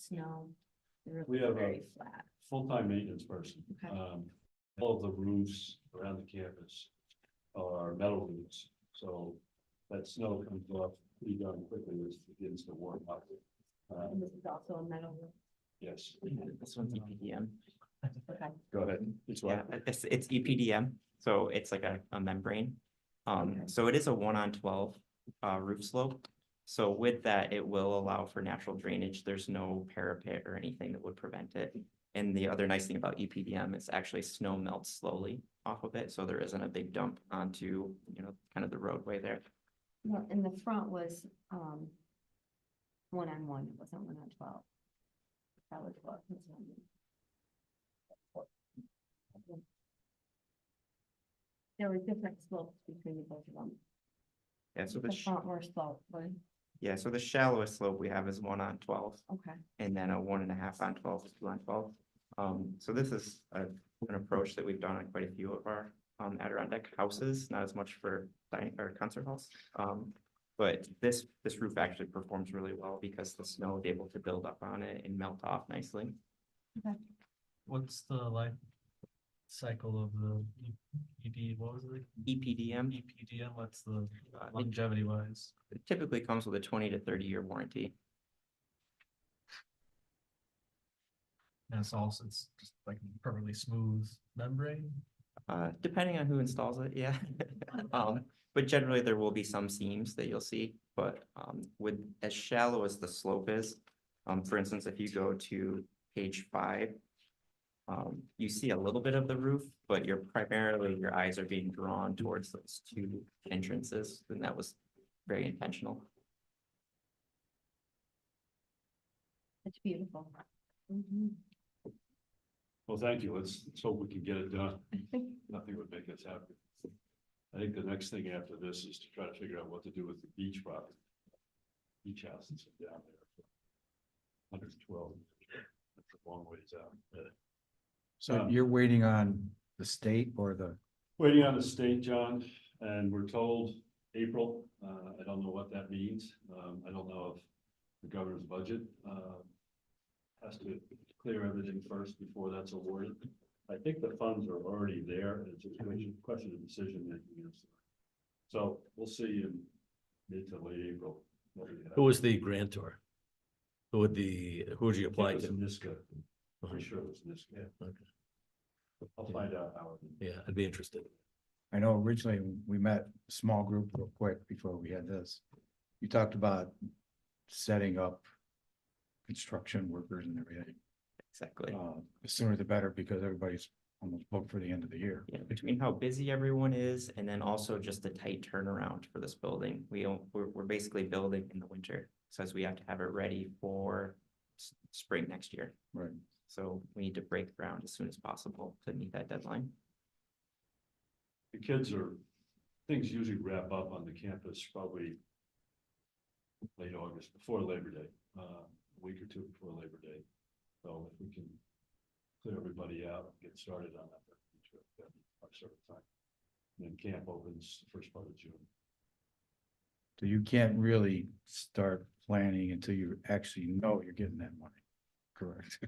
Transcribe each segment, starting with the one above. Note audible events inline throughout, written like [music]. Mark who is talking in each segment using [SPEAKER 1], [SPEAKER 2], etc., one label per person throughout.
[SPEAKER 1] snow. They're
[SPEAKER 2] We have a-
[SPEAKER 1] very flat.
[SPEAKER 2] full-time maintenance person.
[SPEAKER 1] Okay.
[SPEAKER 2] Um, all of the roofs around the campus are metal roofs, so that snow comes off pretty darn quickly as it begins to warm up. Uh,
[SPEAKER 1] And this is also a metal roof.
[SPEAKER 2] yes,
[SPEAKER 3] This one's an E EPDM.
[SPEAKER 1] Okay.
[SPEAKER 2] go ahead. It's
[SPEAKER 3] Yeah,
[SPEAKER 2] what,
[SPEAKER 3] it's, it's E EPDM, so it's like a, a membrane. Um,
[SPEAKER 1] Okay.
[SPEAKER 3] so it is a one on twelve, uh, roof slope. So with that, it will allow for natural drainage. There's no parapet or anything that would prevent it. And the other nice thing about E EPDM is actually snow melts slowly off of it, so there isn't a big dump onto, you know, kind of the roadway there.
[SPEAKER 1] Well, And the front was, um, one on one, it wasn't one on twelve. That was what. was on- There were different slopes between the both of them.
[SPEAKER 3] Yeah, so the,
[SPEAKER 1] The
[SPEAKER 3] sh-
[SPEAKER 1] front were sloped, but,
[SPEAKER 3] yeah, so the shallowest slope we have is one on twelve.
[SPEAKER 1] okay.
[SPEAKER 3] and then a one and a half on twelve, is two on twelve. Um, so this is a, an approach that we've done on quite a few of our, um, Adirondack houses, not as much for dining or concert halls. Um, but this, this roof actually performs really well because the snow is able to build up on it and melt off nicely.
[SPEAKER 4] What's the life cycle of the E- ED, what was it, E
[SPEAKER 3] EPDM
[SPEAKER 4] EPDM, what's the
[SPEAKER 3] uh, it
[SPEAKER 4] longevity wise?
[SPEAKER 3] typically comes with a twenty to thirty year warranty.
[SPEAKER 4] And it's also, it's just like perfectly smooth membrane,
[SPEAKER 3] Uh, depending on who installs it, yeah. [laughs] Um, but generally there will be some seams that you'll see, but, um, with as shallow as the slope is. Um, for instance, if you go to page five. Um, you see a little bit of the roof, but you're primarily, your eyes are being drawn towards those two entrances, and that was very intentional.
[SPEAKER 1] It's beautiful. Mm-hmm.
[SPEAKER 2] well, thank you. Let's, let's hope we can get it done.
[SPEAKER 1] Mhm.
[SPEAKER 2] Nothing would make us happy. I think the next thing after this is to try to figure out what to do with the beach property. Beach houses are down there. Hundred twelve, that's a long ways out. really.
[SPEAKER 5] So
[SPEAKER 2] Um,
[SPEAKER 5] you're waiting on the state or the,
[SPEAKER 2] Waiting on the state, John, and we're told April. Uh, I don't know what that means. Um, I don't know if the governor's budget, uh, has to clear everything first before that's awarded. I think the funds are already there. It's just a question question of decision making. yes. So we'll see in mid to late April. what we have.
[SPEAKER 6] Who was the grantor? Who would the, who would you
[SPEAKER 2] I think
[SPEAKER 6] apply
[SPEAKER 2] it was
[SPEAKER 6] to? Uh-huh.
[SPEAKER 2] Niska. I'm pretty sure it was Niska.
[SPEAKER 6] Okay.
[SPEAKER 2] I'll find out how. it-
[SPEAKER 6] Yeah, I'd be interested.
[SPEAKER 5] I know originally we met small group real quick before we had this. You talked about setting up construction workers and everything.
[SPEAKER 3] Exactly.
[SPEAKER 5] Uh, the sooner the better because everybody's almost booked for the end of the year.
[SPEAKER 3] Yeah, between how busy everyone is and then also just the tight turnaround for this building. We don't, we're, we're basically building in the winter. So as we have to have it ready for s- spring next year.
[SPEAKER 5] Right.
[SPEAKER 3] So we need to break ground as soon as possible to meet that deadline.
[SPEAKER 2] The kids are, things usually wrap up on the campus probably late August, before Labor Day, uh, a week or two before Labor Day. So if we can clear everybody out, and get started on that, that'd be terrific. That'd be our sort of time. And Then camp opens first part of June.
[SPEAKER 5] So you can't really start planning until you actually know you're getting that money. Correct.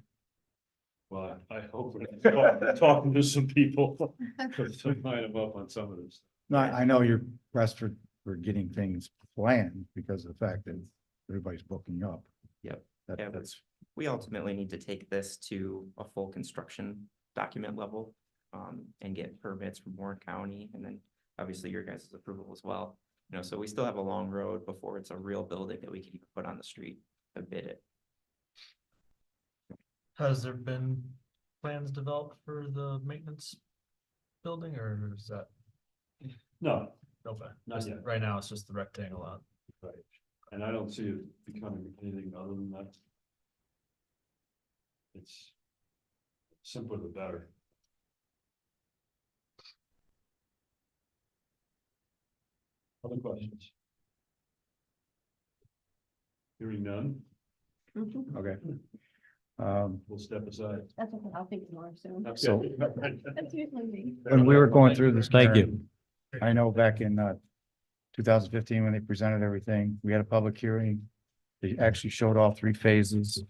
[SPEAKER 2] Well, I I hope we're talking- talking to some people, [laughs] because I might have up on some of this.
[SPEAKER 5] No, I I know you're pressed for, for getting things planned because of the fact that everybody's booking up.
[SPEAKER 3] Yep.
[SPEAKER 5] That,
[SPEAKER 3] Yeah, we-
[SPEAKER 5] that's
[SPEAKER 3] We ultimately need to take this to a full construction document level um, and get permits from Warren County and then obviously your guys' approval as well. You know, so we still have a long road before it's a real building that we can even put on the street to bid it.
[SPEAKER 4] has there been plans developed for the maintenance building, or is that?
[SPEAKER 2] No,
[SPEAKER 4] Okay,
[SPEAKER 2] Not
[SPEAKER 4] just-
[SPEAKER 2] yet.
[SPEAKER 4] right now, it's just the rectangle on,
[SPEAKER 2] And I don't see it becoming anything other than that. It's simpler the better. Other questions? Hearing none,
[SPEAKER 5] Okay. Um,
[SPEAKER 2] we'll step
[SPEAKER 1] Mm-hmm.
[SPEAKER 2] aside.
[SPEAKER 1] That's okay, I'll think more soon.
[SPEAKER 2] [laughs]
[SPEAKER 5] So-
[SPEAKER 1] That's usually me.
[SPEAKER 5] when we were going through this.
[SPEAKER 6] Thank you.
[SPEAKER 5] Karen, I know back in, uh, two thousand fifteen, when they presented everything, we had a public hearing. They actually showed all three phases.